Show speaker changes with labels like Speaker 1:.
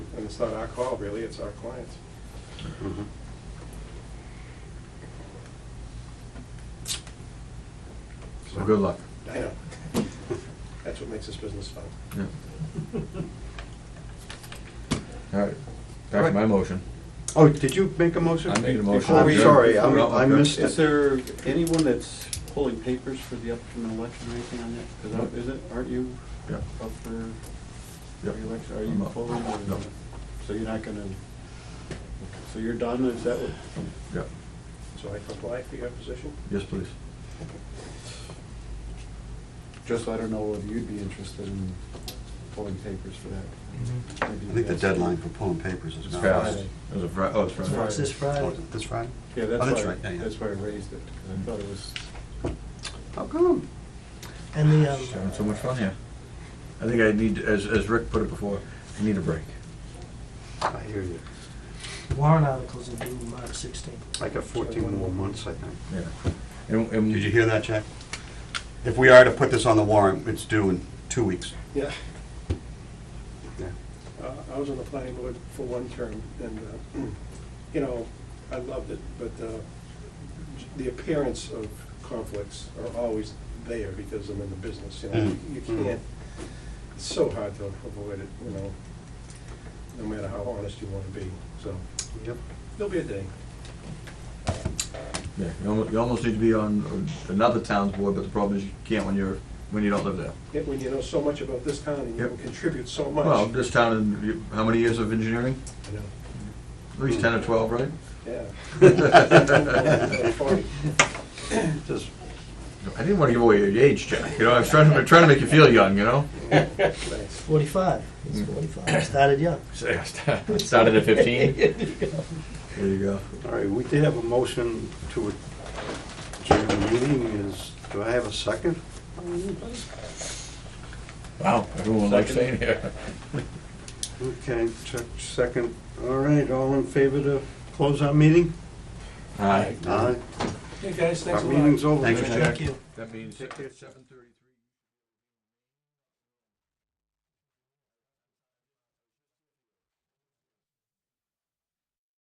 Speaker 1: it's not our call, really, it's our clients.
Speaker 2: Mm-hmm.
Speaker 3: So good luck.
Speaker 1: I know. That's what makes this business fun.
Speaker 3: Yeah. All right, back to my motion.
Speaker 2: Oh, did you make a motion?
Speaker 3: I made a motion.
Speaker 2: Before we-
Speaker 3: I'm
Speaker 2: Sorry, I
Speaker 3: good.
Speaker 2: I missed
Speaker 4: Is
Speaker 2: it.
Speaker 4: there anyone that's pulling papers for the upcoming election or anything on that? Because is it, aren't you
Speaker 3: Yeah.
Speaker 4: up for
Speaker 3: Yeah.
Speaker 4: reelection? Are
Speaker 3: I'm
Speaker 4: you
Speaker 3: up.
Speaker 4: pulling? or-
Speaker 3: No.
Speaker 4: So you're not gonna, so you're done, is that what?
Speaker 3: Yeah,
Speaker 1: So I comply for your position?
Speaker 3: yes, please.
Speaker 4: Just, I don't know whether you'd be interested in pulling papers for that. Maybe
Speaker 2: I think the
Speaker 4: yes.
Speaker 2: deadline for pulling papers is
Speaker 3: It's
Speaker 2: now.
Speaker 3: fast.
Speaker 4: Friday.
Speaker 3: It was a Fri- oh, it's
Speaker 4: It's
Speaker 3: Friday.
Speaker 5: It's this
Speaker 2: Oh,
Speaker 5: Friday.
Speaker 2: This Friday?
Speaker 4: Yeah,
Speaker 2: Oh, that's
Speaker 4: that's why,
Speaker 2: right, yeah, yeah.
Speaker 4: that's why I raised it, because I thought it was,
Speaker 2: How Oh, come?
Speaker 5: And the,
Speaker 3: Just Having so
Speaker 5: um,
Speaker 3: much fun here. I think I need, as, as Rick put it before, I need a break.
Speaker 2: I hear you.
Speaker 5: warrant articles are due March sixteenth.
Speaker 2: I got 14 more months, I think.
Speaker 3: Yeah. And, and.
Speaker 2: Did you hear that, Jack? If we are to put this on the warrant, it's due in two weeks.
Speaker 1: Yeah.
Speaker 2: Yeah.
Speaker 1: Uh, I was on the planning board for one term, and, uh, you know, I loved it, but uh, the appearance of conflicts are always there because I'm in the business, you know?
Speaker 2: Mm.
Speaker 1: You
Speaker 2: Mm.
Speaker 1: can't, it's so hard to avoid it, you know, no matter how honest you want to be, so
Speaker 2: Yep.
Speaker 1: there'll be a day.
Speaker 3: Yeah, you almost, you almost need to be on another town's board, but the problem is you can't when you're, when you don't live there.
Speaker 1: Yet When you know so much about this town and you
Speaker 3: Yep.
Speaker 1: can contribute so much.
Speaker 3: Well, this town, in you- how many years of engineering?
Speaker 1: you know,
Speaker 3: At least ten or twelve, right?
Speaker 1: Yeah.
Speaker 2: Just,
Speaker 3: I didn't want to give away your age, Jack, you know, I was trying to, I'm trying to make you feel young, you know?
Speaker 1: Thanks.
Speaker 5: Forty-five, it's forty-five, started young.
Speaker 3: Started at fifteen? There you go.
Speaker 2: all right, we did have a motion to adjourn the meeting. Is, do I have a second?
Speaker 3: Wow, everyone likes staying here.
Speaker 2: Okay, Chuck, second. All right, all in favor to close our meeting?
Speaker 3: Aye.
Speaker 2: Aye.
Speaker 1: Hey, guys, thanks
Speaker 2: Our
Speaker 1: a lot.
Speaker 2: meeting's over.
Speaker 3: Thanks, Jack.
Speaker 5: Thank you.
Speaker 3: That means
Speaker 2: Take care.
Speaker 3: seven thirty.